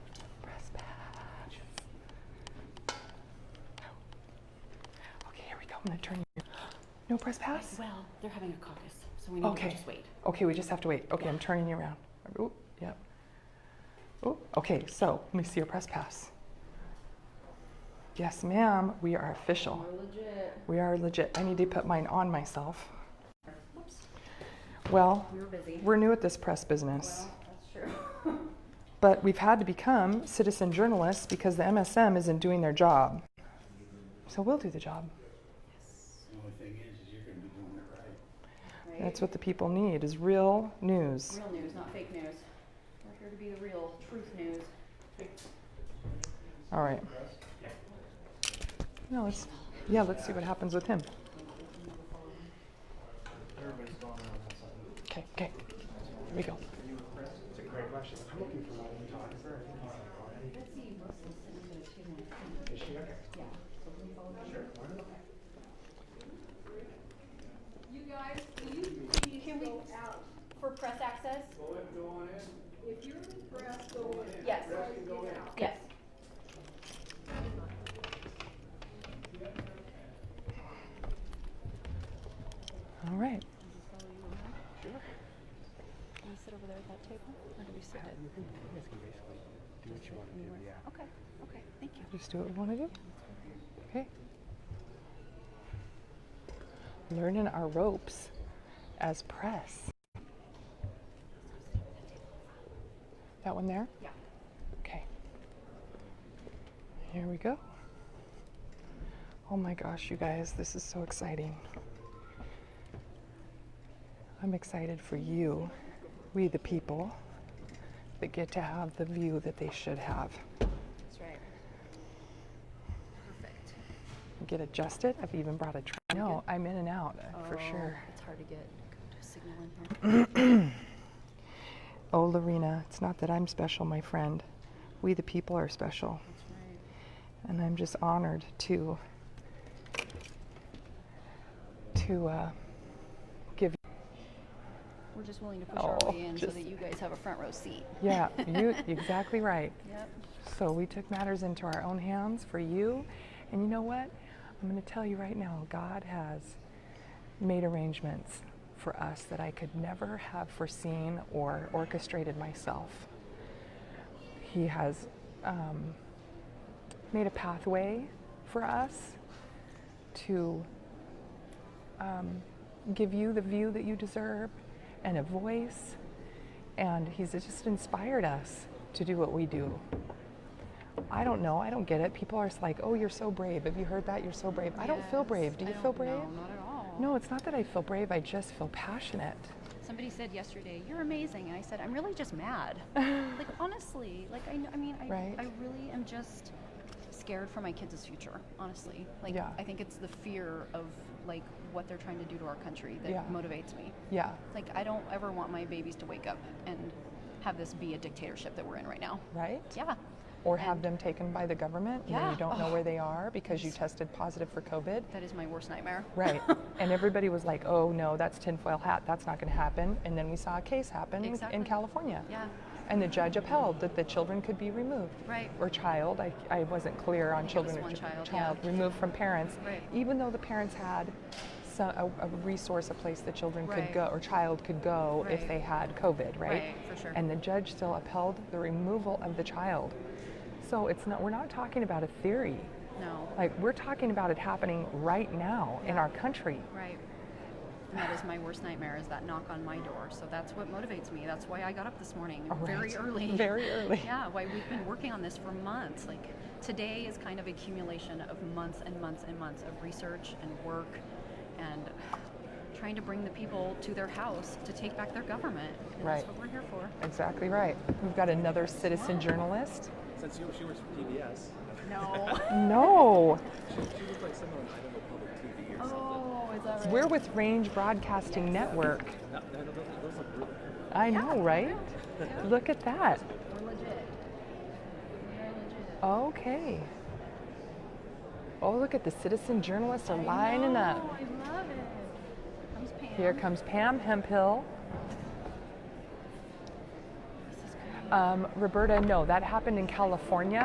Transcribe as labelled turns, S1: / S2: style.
S1: Oh. I'm gonna turn you. No press pass?
S2: Well, they're having a caucus, so we need
S1: Okay.
S2: to just wait.
S1: Okay, we just have to wait. Okay, I'm turning you around. Oop, yep. Oop, okay, so let me see your press pass. Yes, ma'am, we are official.
S2: legit.
S1: We are legit. I need to put mine on myself.
S2: Whoops,
S1: Well,
S2: we were busy.
S1: we're new at this press business,
S2: Well, that's true.
S1: but we've had to become citizen journalists because the MSM isn't doing their job. So we'll do the job.
S3: The only thing is, is you're gonna be doing it right.
S2: Right?
S1: That's what the people need is real news.
S2: Real news, not fake news. We're here to be the real, truth news.
S1: All right. No, let's, yeah, let's see what happens with him.
S3: Everybody's gone around that side.
S1: Okay, okay. Here we go.
S3: It's a great question. I'm looking for my photographer. I think he's like, "Oh, hey, Is she okay?
S4: You guys, can you, can we go out for press access?
S3: Go in, go on in.
S4: If you're with press, go in. Yes.
S2: Yes.
S1: All right.
S2: Can we sit over there at that table, or do we sit at?
S3: You guys can basically do what you wanna do, yeah.
S2: Okay, okay, thank you.
S1: Just do what we want to do. Okay. Learning our ropes as press. That one there?
S2: Yeah.
S1: Okay. Here we go. Oh my gosh, you guys, this is so exciting. I'm excited for you, we the people, that get to have the view that they should have.
S2: That's right. Perfect.
S1: get adjusted. I've even brought a train. No, I'm in and out uh, for
S2: Oh,
S1: sure.
S2: It's hard to get good signal in here.
S1: Oh, Lorena, it's not that I'm special, my friend. We the people are special,
S2: That's right.
S1: and I'm just honored to to uh, give.
S2: We're just willing to push our
S1: Oh,
S2: way in so
S1: just-
S2: that you guys have a front row seat.
S1: Yeah, you exactly right.
S2: Yep.
S1: So we took matters into our own hands for you, and you know what? I'm going to tell you right now. God has made arrangements for us that I could never have foreseen or orchestrated myself. He has um, made a pathway for us to um, give you the view that you deserve and a voice. And He's just inspired us to do what we do. I don't know. I don't get it. People are just like, oh, you're so brave. Have you heard that? You're so brave. I don't feel
S2: Yes.
S1: brave. Do
S2: I
S1: you
S2: don't-
S1: feel brave?
S2: No, not at all.
S1: No, it's not that I feel brave, I just feel passionate.
S2: Somebody said yesterday, "You're amazing," and I said, "I'm really just mad." like honestly, like I, kn- I mean, I,
S1: Right.
S2: I really am just scared for my kids' future. Honestly, like
S1: Yeah.
S2: I think it's the fear of like what they're trying to do to our country that
S1: Yeah.
S2: motivates me.
S1: Yeah,
S2: Like I don't ever want my babies to wake up and have this be a dictatorship that we're in right now.
S1: right?
S2: Yeah.
S1: Or have
S2: And-
S1: them taken by the government and then
S2: Yeah.
S1: you don't know
S2: Oh.
S1: where they are because you tested positive for COVID.
S2: That is my worst nightmare.
S1: Right. and everybody was like, oh no, that's tinfoil hat, that's not going to happen. And then we saw a case happen in- in
S2: Exactly.
S1: California.
S2: Yeah.
S1: And the judge upheld that the children could be removed.
S2: Right.
S1: Or child, I, I wasn't clear on
S2: think it was
S1: children or
S2: one
S1: chi-
S2: child,
S1: child
S2: yeah.
S1: removed from parents,
S2: Right.
S1: even though the parents had so a, a resource, a place that children could
S2: Right.
S1: go or child could go if
S2: Right.
S1: they had COVID, right?
S2: Right, for sure.
S1: And the judge still upheld the removal of the child. So it's not, we're not talking about a theory.
S2: No.
S1: Like we're talking about it happening right now in our country.
S2: Right. And that is my worst nightmare is that knock on my door. So that's what motivates me. That's why I got up this morning very
S1: Right.
S2: early.
S1: Very early.
S2: Yeah, why we've been working on this for months. Like today is kind of accumulation of months and months and months of research and work and trying to bring the people to their house to take back their government. And
S1: Right.
S2: That's what we're here for.
S1: Exactly right. We've got another citizen
S2: Yeah.
S1: journalist.
S5: Since you, she works for PBS,
S2: No.
S1: No.
S5: she, she looked like someone on Idaho Public TV or something.
S2: oh, is that right?
S1: We're with Range Broadcasting Network.
S5: That- that- those- those look really good.
S1: I know, right? Look at that.
S2: We're legit. We are legit.
S1: Okay. Oh, look at the citizen journalists are lining up.
S2: I love it. Comes Pam.
S1: Here comes Pam Hempill.
S2: This is great.
S1: Um, Roberta, no, that happened in California.